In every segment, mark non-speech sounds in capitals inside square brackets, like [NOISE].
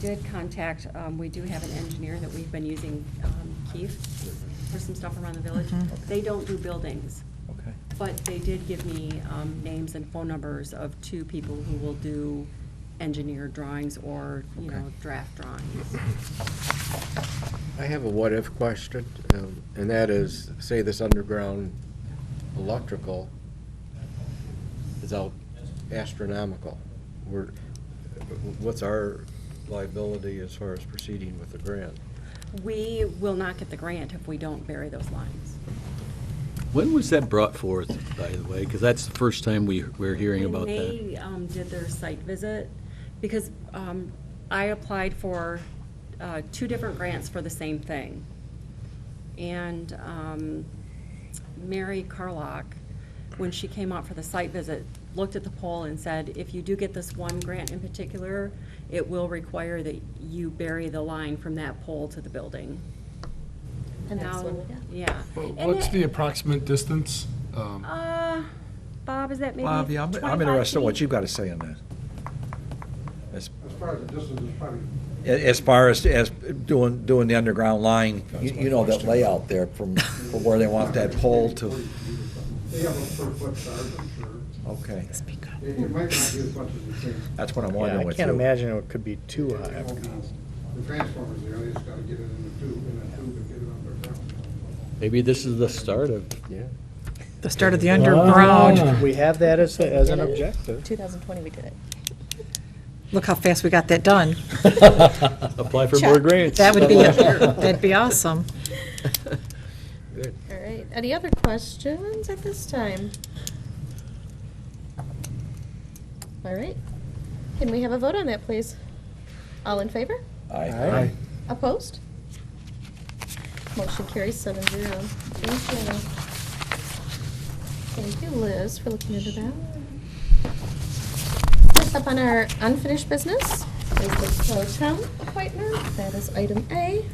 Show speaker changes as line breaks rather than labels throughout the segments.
did contact, um, we do have an engineer that we've been using, um, Keith, for some stuff around the village.
Mhm.
They don't do buildings,
Mm-hmm. Okay.
but they did give me um, names and phone numbers of two people who will do engineered drawings or, you know,
Okay.
draft drawings.
I have a what-if question, um, and that is, say this underground electrical is out astronomical. We're, what's our liability as far as proceeding with the grant?
We will not get the grant if we don't bury those lines.
When was that brought forth, by the way? Because that's the first time we, we're hearing about
When
that.
they um, did their site visit, because um, I applied for uh, two different grants for the same thing. And um, Mary Carlock, when she came out for the site visit, looked at the poll and said, if you do get this one grant in particular, it will require that you bury the line from that pole to the building.
And that's what we
Now-
got.
Yeah.
Well,
And
What's
it-
the approximate distance? Um,
Uh, Bob, is that maybe
Bob, yeah, I'm, I'm
25
interested in what
feet?
you've got to say on that. As,
As far as the distance is probably
as far as, as doing, doing the underground line, you, you know that layout there from, from where they want that pole to,
They have a per foot charge, I'm sure.
okay.
It it might not be as much as you think.
That's what I'm
Yeah,
wondering
I
with
can't
you.
imagine it could be too high.
It won't be- The transformers, there, they just gotta get it in the tube, in that tube and get it underground.
Maybe this is the start [LAUGHS] of,
The start of the underground.
Ah. We have that as, a- as an
Did it?
objective.
2020 we did it.
Look how fast we got that done.
apply for more
Check.
grants. [LAUGHS]
That would be, that'd be awesome.
All right, any other questions at this time? All right, can we have a vote on that, please? All in favor?
Aye.
Opposed? Motion carries seven zero. Thank you. Thank you, Liz, for looking into that. Next up on our unfinished business is the pro tem appointment. That is item A.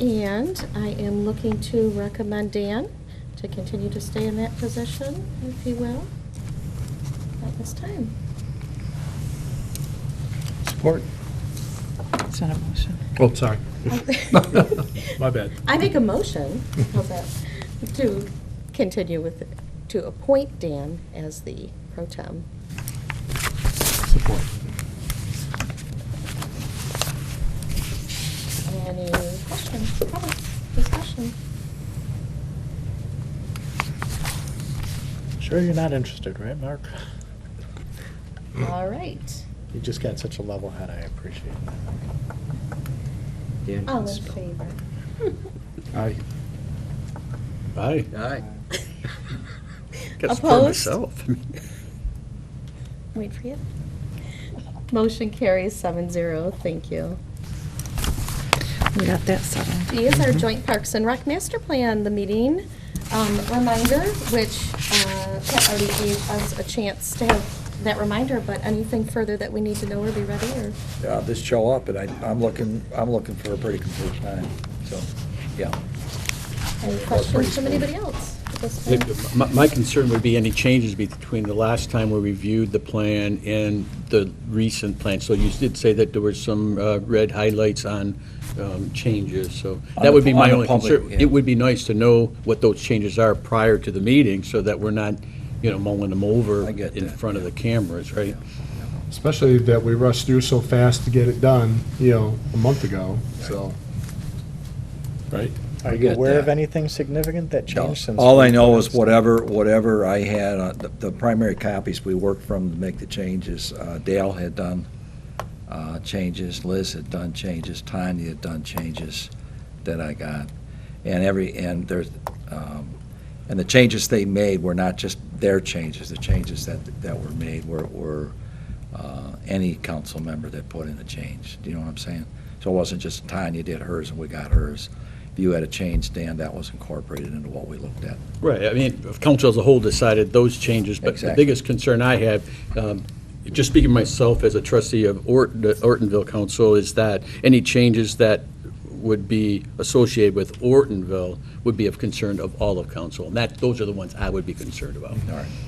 And I am looking to recommend Dan to continue to stay in that position, if he will, at this time.
Support.
It's not a motion.
Oh, sorry. [LAUGHS] My bad.
I make a motion, how's that, to continue with, to appoint Dan as the pro tem.
Support.
Any questions, comments, discussion?
Sure you're not interested, right, Mark?
Mm.
All right,
You just got such a level head, I appreciate that.
all in favor?
Aye.
Aye.
Aye.
[LAUGHS] Gotta support
Opposed?
myself.
Wait for you. Motion carries seven zero, thank you.
We got that settled.
D is our joint Parks and Rec Master Plan, the meeting um, reminder, which uh, Pat already gave us a chance to have that reminder, but anything further that we need to know or be ready, or?
Uh, just show up, and I, I'm looking, I'm looking for a pretty complete time, so, yeah.
Any questions from anybody else? at this time?
Look, My my concern would be any changes between the last time we reviewed the plan and the recent plan. So you did say that there were some uh, red highlights on um, changes, so
On
that
the-
would be my
on the
only
public,
concern.
yeah.
It would be nice to know what those changes are prior to the meeting, so that we're not, you know, mulling them over
I get
in
that,
front of the cameras, right?
Especially that we rushed through so fast to get it done, you know, a month ago, so. Right?
Are you
get
aware of
that.
anything significant that
No.
changed since?
All I
we
know is
last-
whatever, whatever I had, uh, the- the primary copies we worked from to make the changes, uh, Dale had done uh, changes, Liz had done changes, Tanya had done changes that I got. And every, and there's, um, and the changes they made were not just their changes, the changes that, that were made were, were uh, any council member that put in a change. Do you know what I'm saying? So it wasn't just Tanya did hers and we got hers. If you had a change, Dan, that was incorporated into what we looked at.
Right, I mean, if council as a whole decided those changes, but the
Exactly.
biggest concern I have, um, just speaking myself as a trustee of Orton- the Ortonville Council, is that any changes that would be associated with Ortonville would be of concern of all of council, and that, those are the ones I would be concerned about.
All right.